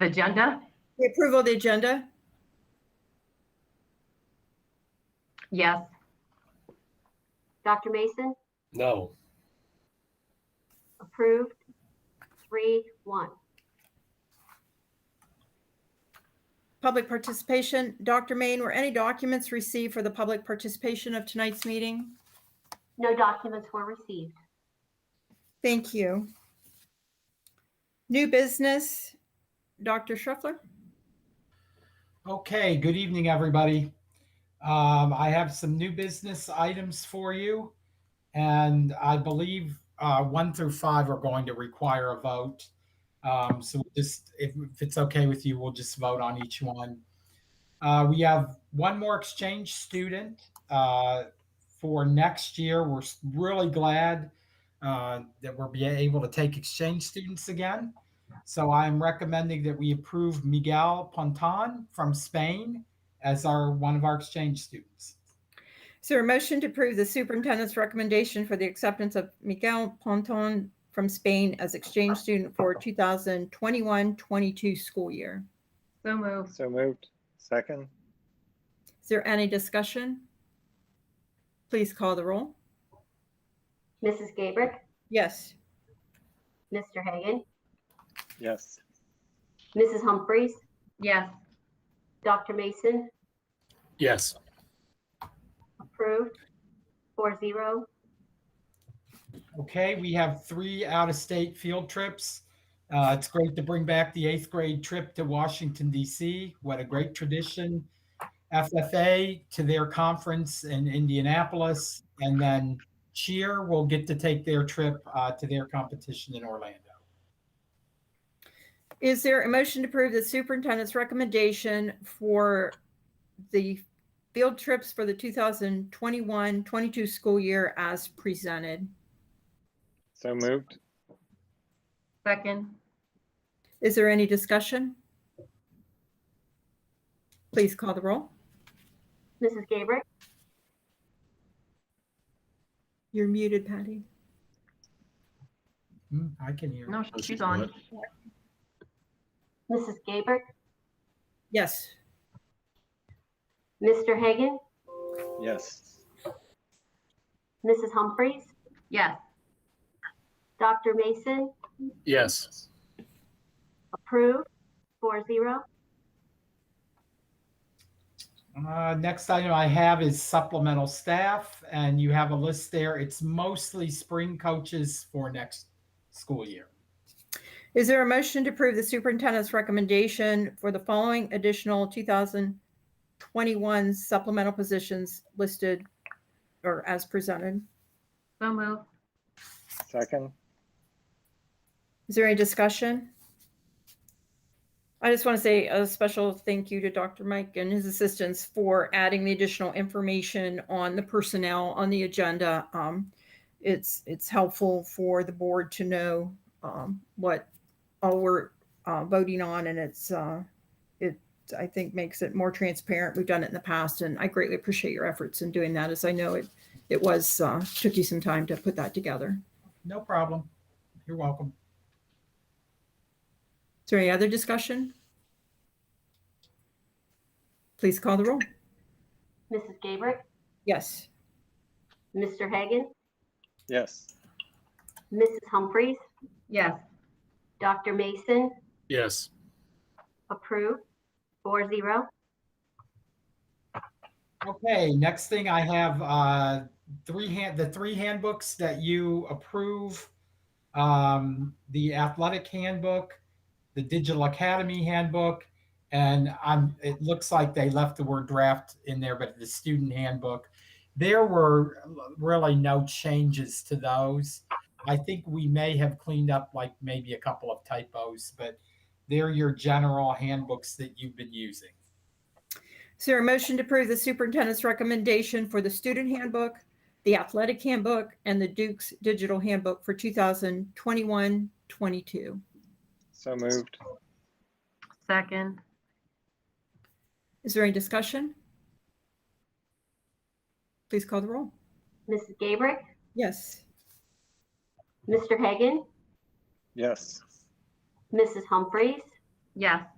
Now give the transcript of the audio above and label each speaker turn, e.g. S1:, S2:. S1: the agenda?
S2: The approval of the agenda?
S1: Yes.
S3: Dr. Mason,
S4: No.
S3: approved, three, one.
S2: Public participation, Dr. Main, were any documents received for the public participation of tonight's meeting?
S3: No documents were received.
S2: Thank you. New business, Dr. Schruffler?
S5: Okay, good evening, everybody. Um, I have some new business items for you. And I believe uh, one through five are going to require a vote. Um, so we'll just, if, if it's okay with you, we'll just vote on each one. Uh, we have one more exchange student uh, for next year. We're s- really glad uh, that we'll be able to take exchange students again. So I'm recommending that we approve Miguel Ponton from Spain as our, one of our exchange students.
S2: Is there a motion to approve the superintendent's recommendation for the acceptance of Miguel Ponton from Spain as exchange student for 2021-22 school year?
S1: So moved.
S6: So moved. Second?
S2: Is there any discussion? Please call the roll.
S3: Mrs. Gabrick,
S2: Yes.
S3: Mr. Hagan,
S6: Yes.
S3: Mrs. Humphries,
S1: Yes.
S3: Dr. Mason,
S4: Yes.
S3: approved, four, zero.
S5: Okay, we have three out-of-state field trips. Uh, it's great to bring back the eighth grade trip to Washington DC. What a great tradition. FFA to their conference in Indianapolis, and then Cheer will get to take their trip uh, to their competition in Orlando.
S2: Is there a motion to approve the superintendent's recommendation for the field trips for the 2021-22 school year as presented?
S6: So moved.
S1: Second.
S2: Is there any discussion? Please call the roll.
S3: Mrs. Gabrick,
S2: You're muted, Patty.
S5: Hmm, I can hear.
S1: No, she's on.
S3: Mrs. Gabrick,
S2: Yes.
S3: Mr. Hagan,
S6: Yes.
S3: Mrs. Humphries,
S1: Yes.
S3: Dr. Mason,
S4: Yes.
S3: approved, four, zero.
S5: Uh, Next item I have is supplemental staff, and you have a list there. It's mostly spring coaches for next school year.
S2: Is there a motion to approve the superintendent's recommendation for the following additional 2021 supplemental positions listed or as presented?
S1: So moved.
S6: Second?
S2: Is there any discussion? I just want to say a special thank you to Dr. Mike and his assistants for adding the additional information on the personnel on the agenda. Um, It's, it's helpful for the board to know um, what all we're uh, voting on and it's, uh, it, I think makes it more transparent. We've done it in the past and I greatly appreciate your efforts in doing that as I know it, it was, uh, took you some time to put that together.
S5: No problem. You're welcome.
S2: Is there any other discussion? Please call the roll.
S3: Mrs. Gabrick,
S2: Yes.
S3: Mr. Hagan,
S6: Yes.
S3: Mrs. Humphries,
S1: Yes.
S3: Dr. Mason,
S4: Yes.
S3: approved, four, zero.
S5: Okay, next thing I have, uh, three hand, the three handbooks that you approve. Um, the athletic handbook, the digital academy handbook, and I'm, it looks like they left the word draft in there, but the student handbook. There were really no changes to those. I think we may have cleaned up like maybe a couple of typos, but they're your general handbooks that you've been using.
S2: Is there a motion to approve the superintendent's recommendation for the student handbook, the athletic handbook, and the Duke's digital handbook for 2021, 22?
S6: So moved.
S1: Second.
S2: Is there any discussion? Please call the roll.
S3: Mrs. Gabrick,
S2: Yes.
S3: Mr. Hagan,
S6: Yes.
S3: Mrs. Humphries,
S1: Yes.